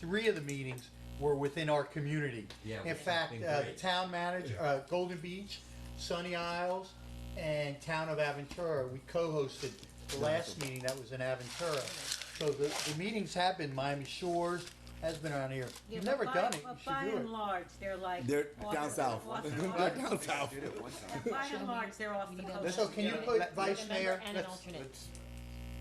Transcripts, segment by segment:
three of the meetings were within our community. Yeah, In which has fact, been uh, the great. town manager, uh, Golden Beach, Sunny Isles, and Town of Aventura, we co-hosted the last meeting that was in Aventura. So the, the meetings have been Miami Shores, has been on here. Yeah, You've but never by- done it, but you By should and do it. large, they're like. They're off down the- south. off the- They're down south. By and large, they're off the coast. So can you put vice mayor? And an alternate. Let's,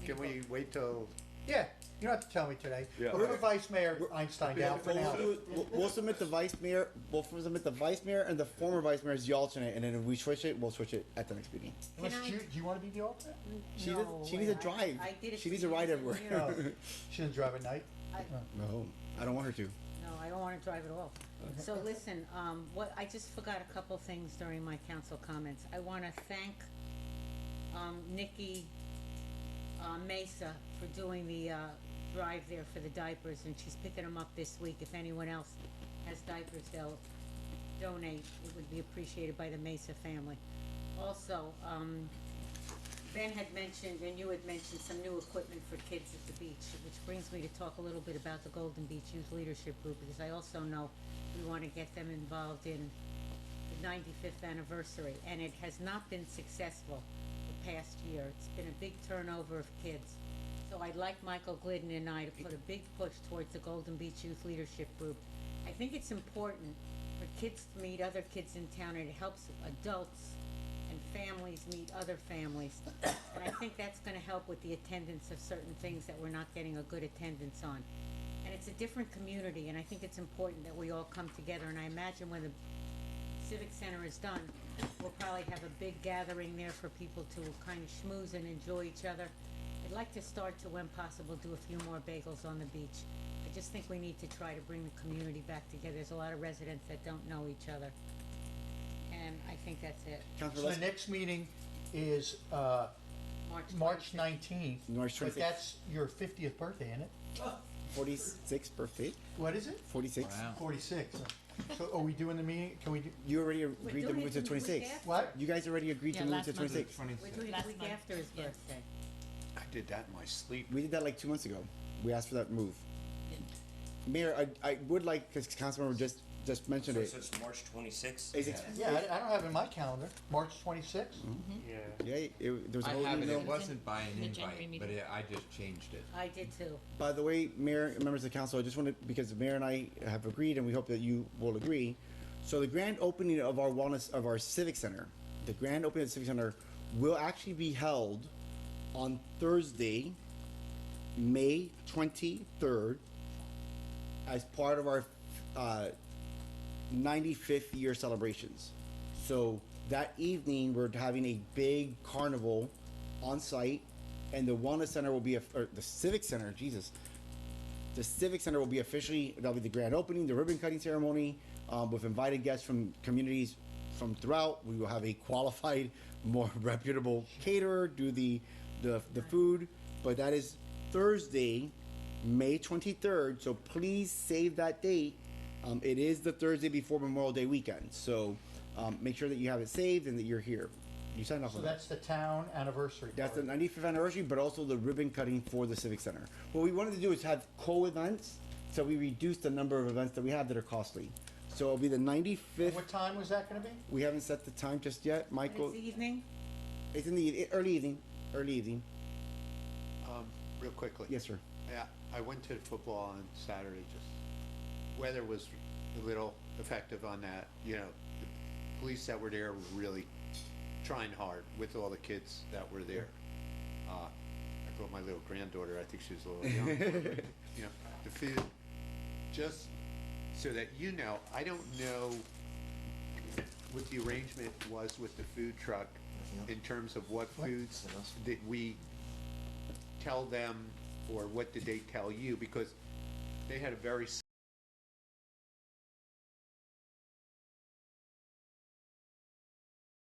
can we wait till, Yeah, you don't have to tell me today. Yeah. But put Vice Mayor Einstein down for Well, now. we'll, do it- we'll- we'll submit the vice mayor. We'll submit the vice mayor and the former vice mayor as the alternate, and then if we switch it, we'll switch it at the next meeting. Unless I- you, do you wanna be the alternate? She No does, she needs a way. drive. I did it she for needs a ride years and everywhere. No, she doesn't drive at night. I- no, I don't want her to. No, I don't wanna drive at all. So listen, um, what, I just forgot a couple things during my council comments. I wanna thank, um, Nikki, uh, Mesa for doing the, uh, drive there for the diapers, and she's picking them up this week. If anyone else has diapers, they'll donate. It would be appreciated by the Mesa family. Also, um, Ben had mentioned, and you had mentioned some new equipment for kids at the beach, which brings me to talk a little bit about the Golden Beach Youth Leadership Group, because I also know we want to get them involved in the ninety-fifth anniversary, and it has not been successful the past year. It's been a big turnover of kids. So I'd like Michael Glidden and I to put a big push towards the Golden Beach Youth Leadership Group. I think it's important for kids to meet other kids in town, and it helps adults and families meet other families. And I think that's gonna help with the attendance of certain things that we're not getting a good attendance on. And it's a different community, and I think it's important that we all come together, and I imagine when the Civic Center is done, we'll probably have a big gathering there for people to kind of schmooze and enjoy each other. I'd like to start to, when possible, do a few more bagels on the beach. I just think we need to try to bring the community back together. There's a lot of residents that don't know each other. And I think that's it. So Councilor the Les- next meeting is, uh, March March 26th. nineteenth. March But 26th. that's your fiftieth birthday, isn't it? forty-six birthday. What is it? Forty-six. Wow. Forty-six. So are we doing the meeting? Can we do, You already We're agreed to doing move it to the week twenty-six. after. what? You guys already agreed Yeah, to move last to month. twenty-six. We're doing it Last the week month. after his Yeah. birthday. I did that in my sleep. We did that like two months ago. We asked for that move. Mayor, I, I would like because Councilmember just just mentioned So it. so it's March twenty-sixth? Is it- Yeah, I, I don't have it in my calendar. March twenty-sixth? Mm-hmm. Yeah, it, there was a I whole have it, email. it wasn't by an The January invite, but meeting. it- I just changed it. I did too. By the way, Mayor, members of the council, I just wanted, because the mayor and I have agreed, and we hope that you will agree. So the grand opening of our wellness, of our civic center, the grand opening of the civic center will actually be held on Thursday, May twenty-third, as part of our, uh, 95th year celebrations. So that evening, we're having a big carnival on site, and the Wellness Center will be, a, or the Civic Center, Jesus. The Civic Center will be officially, that'll be the grand opening, the ribbon cutting ceremony, um, with invited guests from communities from throughout. We will have a qualified, more reputable caterer do the, the, the food, but that is Thursday, May 23rd, so please save that date. Um, it is the Thursday before Memorial Day weekend, so um, make sure that you have it saved and that you're here. You signed off So on that. that's the town anniversary That's the party. 95th anniversary, but also the ribbon cutting for the Civic Center. What we wanted to do is have co-events, so we reduce the number of events that we have that are costly. So it'll be the 95th. What time was that gonna be? We haven't set the time just yet, But Michael. it's evening, It's in the e, early evening. Early evening. Um, real quickly. Yes, sir. Yeah, I went to the football on Saturday, just, weather was a little effective on that, you know. the Police that were there were really trying hard with all the kids that were there. Uh, I brought my little granddaughter, I think she was a little young. You know, the field, just so that you know, I don't know what the arrangement was with the food truck in terms of what foods that we tell them or what did they tell you? Because they had a very s-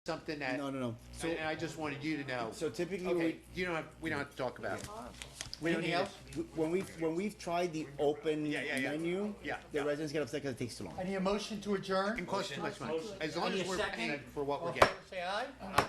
something that No, no, no. So, and I just wanted you to know. so typically okay, we, you don't have we don't have to talk about it. We don't Anything need else? else. When we've, when we've tried the open Yeah, yeah, yeah. menu, Yeah, the yeah. residents get upset because it takes too long. I need a motion to adjourn. It costs too much money. As long Any as we're second? paying for what All we're in getting. favor, Say aye.